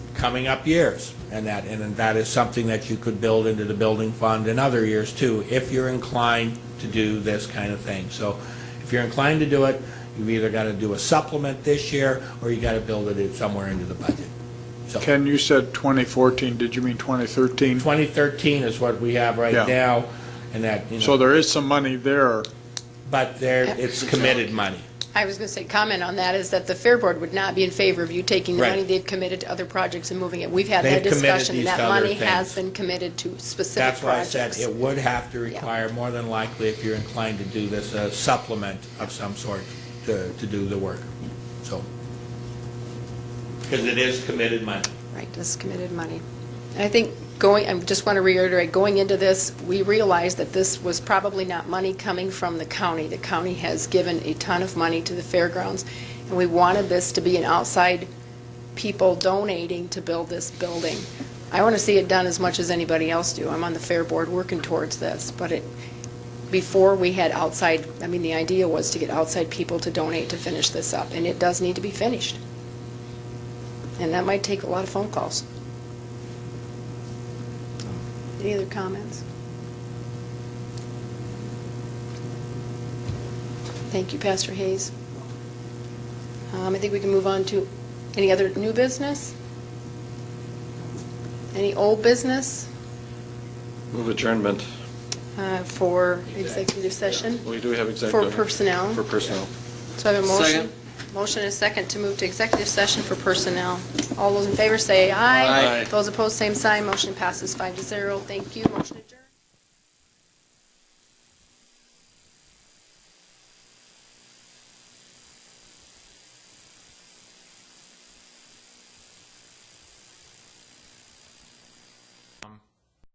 coming up years. And that, and that is something that you could build into the building fund in other years too, if you're inclined to do this kind of thing. So if you're inclined to do it, you've either got to do a supplement this year, or you got to build it in somewhere into the budget. So Ken, you said 2014, did you mean 2013? 2013 is what we have right Yeah. now, and that, you So know, there is some money there. but there, it's committed money. I was going to say, comment on that is that the Fair Board would not be in favor of you taking the Right. money they've committed to other projects and moving it. We've had They've that committed discussion. these and to That other money has things. been committed to specific That's why I said projects. it would have to require, more than likely, if you're inclined to do this, a supplement of some sort to, to do the work, so. Because it is committed money. Right, this is committed money. And I think going, I just want to reiterate, going into this, we realized that this was probably not money coming from the county. The county has given a ton of money to the fairgrounds, and we wanted this to be an outside people donating to build this building. I want to see it done as much as anybody else do. I'm on the fair board working towards this, but it, before we had outside, I mean, the idea was to get outside people to donate to finish this up, and it does need to be finished. And that might take a lot of phone calls. Any other comments? Thank you, Pastor Hayes. Um, I think we can move on to any other new business? Any old business Move adjournment. uh, for executive session? We do have For executive. personnel? For personnel. So I have a motion. Motion and a second to move to executive session for personnel. All those in favor say aye. Aye. Those opposed, same sign. Motion passes five to zero. Thank you. Motion adjourned.